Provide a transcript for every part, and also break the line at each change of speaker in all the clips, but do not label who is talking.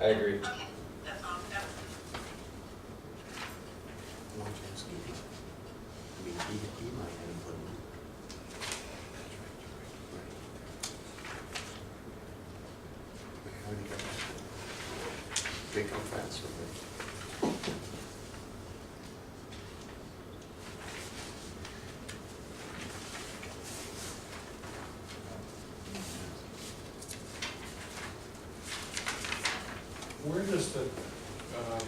I agree.
Okay, that's all, that's
Landscaping. I mean, he, he might have put them. Right. I already got that. They come fast, so they.
Where does the, um,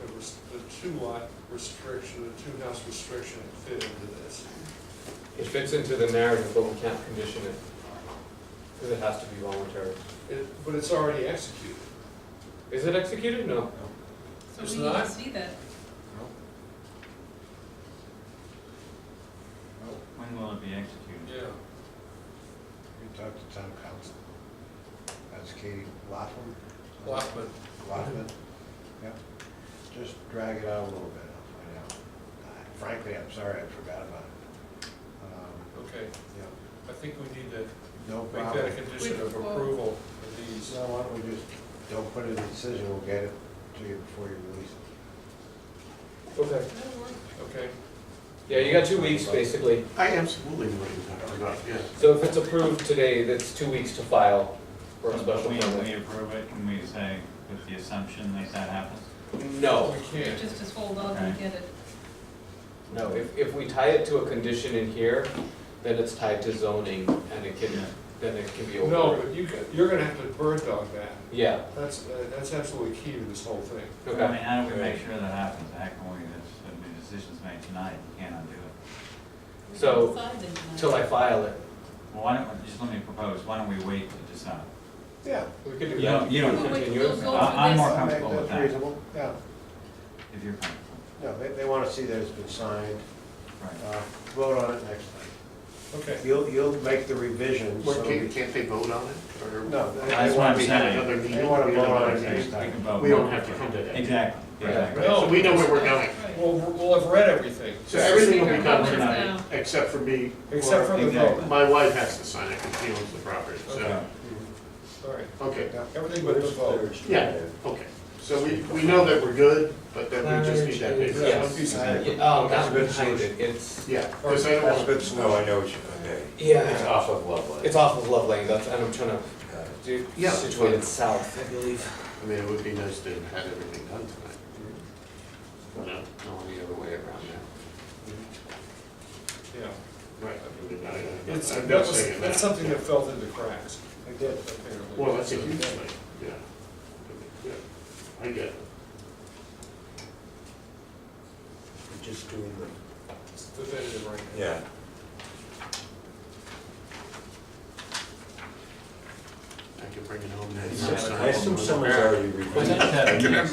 the res- the two lot restriction, the two house restriction fit into this?
It fits into the narrative, but we can't condition it, because it has to be voluntary.
It, but it's already executed.
Is it executed? No.
So
It's
we need to
not?
see that.
Oh,
When will it be executed?
Yeah.
We talked to town council. That's Katie Laughlin.
Blackman.
Lockman, yeah. Just drag it out a little bit, I'll find out. I- Frankly, I'm sorry, I forgot about it. Um,
okay,
Yeah,
I think we need to
no
make that a
problem.
condition of
Wait, well-
approval of these.
So why don't we just, don't put it in the decision, we'll get it to you before you release it.
Okay.
That'll work.
Okay,
Yeah, you got two weeks, basically.
I absolutely wouldn't have forgot, yes.
So if it's approved today, that's two weeks to file for a special
We- We
permit.
approve it, can we say with the assumption that that happens?
No,
we can't.
Just just hold on and
Okay.
get it.
no, if, if we tie it to a condition in here, then it's tied to zoning and it can, then it can be
No,
overruled.
but you, ca- you're gonna have to bird dog that.
Yeah,
That's, uh, that's absolutely key to this whole thing.
I mean,
okay.
how do we make sure that happens? How can we, this- if the decision's made tonight, you can't undo it?
We
So,
can decide then tonight.
Till I file it.
Well, why don't, just let me propose, why don't we wait to decide?
Yeah.
We could do
You don't,
that.
you
We'll
don't,
Oh, wait
continue
till
it.
those go
I- I'm
for
more
this.
comfortable with
That's
that,
reasonable, yeah.
if you're comfortable.
No, they, they wanna see that it's been signed,
Right.
uh, vote on it next time.
Okay.
You'll, you'll make the revisions, so.
Well, can't,
we-
can't they vote on it, or?
No, they-
That's what I'm
they want to
We
see.
have
saying.
another meeting,
They wanna
we
vote
have
on it
another
We
next
meeting.
time.
can vote.
We don't have to come to that.
Exactly,
Right.
exactly.
No,
So we know where we're going.
Right.
Well, we'll have read everything,
So everything will
Speaker
be done
comments
tonight,
now.
except for me.
except for the vote.
Exactly.
My wife has to sign it, because she owns the property, so,
Okay.
All right,
okay,
everything but the vote.
yeah, okay. So we, we know that we're good, but then we just need that paper.
Yes.
One piece of
Yeah.
paper.
Yeah, Oh,
That's
that
a good
behind
solution.
it, it's,
Yeah, because I don't want.
bit slow, I know what you're gonna do.
yeah,
off of Loveland.
it's off of Loveland, that's, and I'm trying to do,
Yeah.
situate it south, I believe.
I mean, it would be nice to have everything done tonight. No, no, the other way around now.
Yeah.
Right. I mean, I-
It's,
I'm not
that was,
saying
that's something that fell through the cracks,
I did.
apparently.
Well, that's a huge thing, yeah. Yeah, I get it.
We're Just doing the
It's definitive right now.
Yeah.
I can bring it home next
Yeah.
time.
I assume
someone's already
We just have a meeting.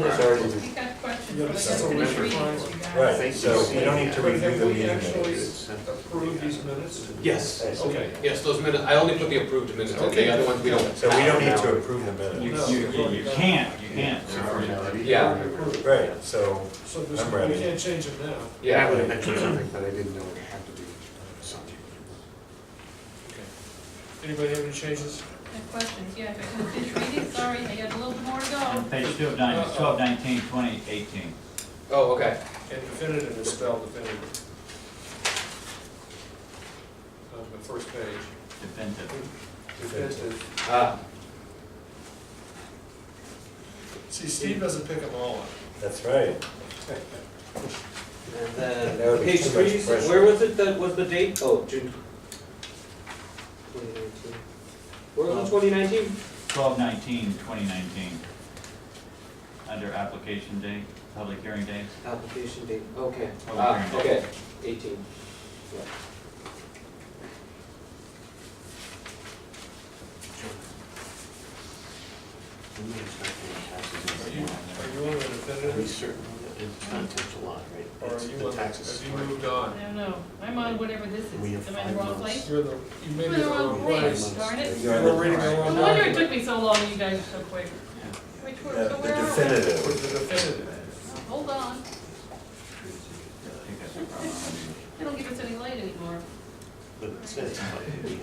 We got questions,
Yeah,
but
this
I
is
got
a
to
wish
read
requirement.
it, you guys.
Right. So we don't need to
But
review
have
the
we
meeting
actually
minutes.
approved these minutes?
Yes.
Okay.
Yes, those minutes, I only put the approved minutes, in. the other ones we don't.
So we don't need
have now.
to approve the
You,
No.
minutes.
you, you- you can't, you can't.
It's a formality.
Yeah.
Approved.
Right, so,
So there's,
I'm
we
ready.
can't change them now.
Yeah, I
Yeah,
would have mentioned something, but I didn't know it had to be something.
Okay. Anybody have any changes?
Got questions, yeah, if I can finish reading, sorry, I got a little more to go.
On page two of nine, it's twelve nineteen twenty eighteen.
oh, okay,
And definitive is spelled definitive. On the first page,
Definitive.
definitive.
ah,
See, Steve doesn't pick them all up.
that's right.
and then,
That would be
page
too
three,
much pressure.
where was it that, was the date, oh, June. Twenty nineteen. Where was it, twenty nineteen?
Twelve nineteen twenty nineteen. Under application date, public hearing date.
Application date, okay,
Oh,
ah,
yeah.
okay, eighteen. Yeah.
I'm not expecting
Are
taxes
you, are you on the
anymore. Are we
definitive,
certain that it's not touch a lot, right?
or are
It's
you
the
on, the-
taxes
have you
part.
moved
I
on?
don't know, I'm on whatever this
We
is,
have
am I in the
five
wrong
months.
place?
You're the, you may be
Am I in
the
the wrong
wrong
place,
place.
darn it.
You were reading the wrong
No wonder it
document.
took me so long, you guys are so quick. Which
The
one, so
the
where are we?
With
definitive.
the definitive.
Hold on,
I think that's a problem.
they don't give us any light anymore.
But it's- it's-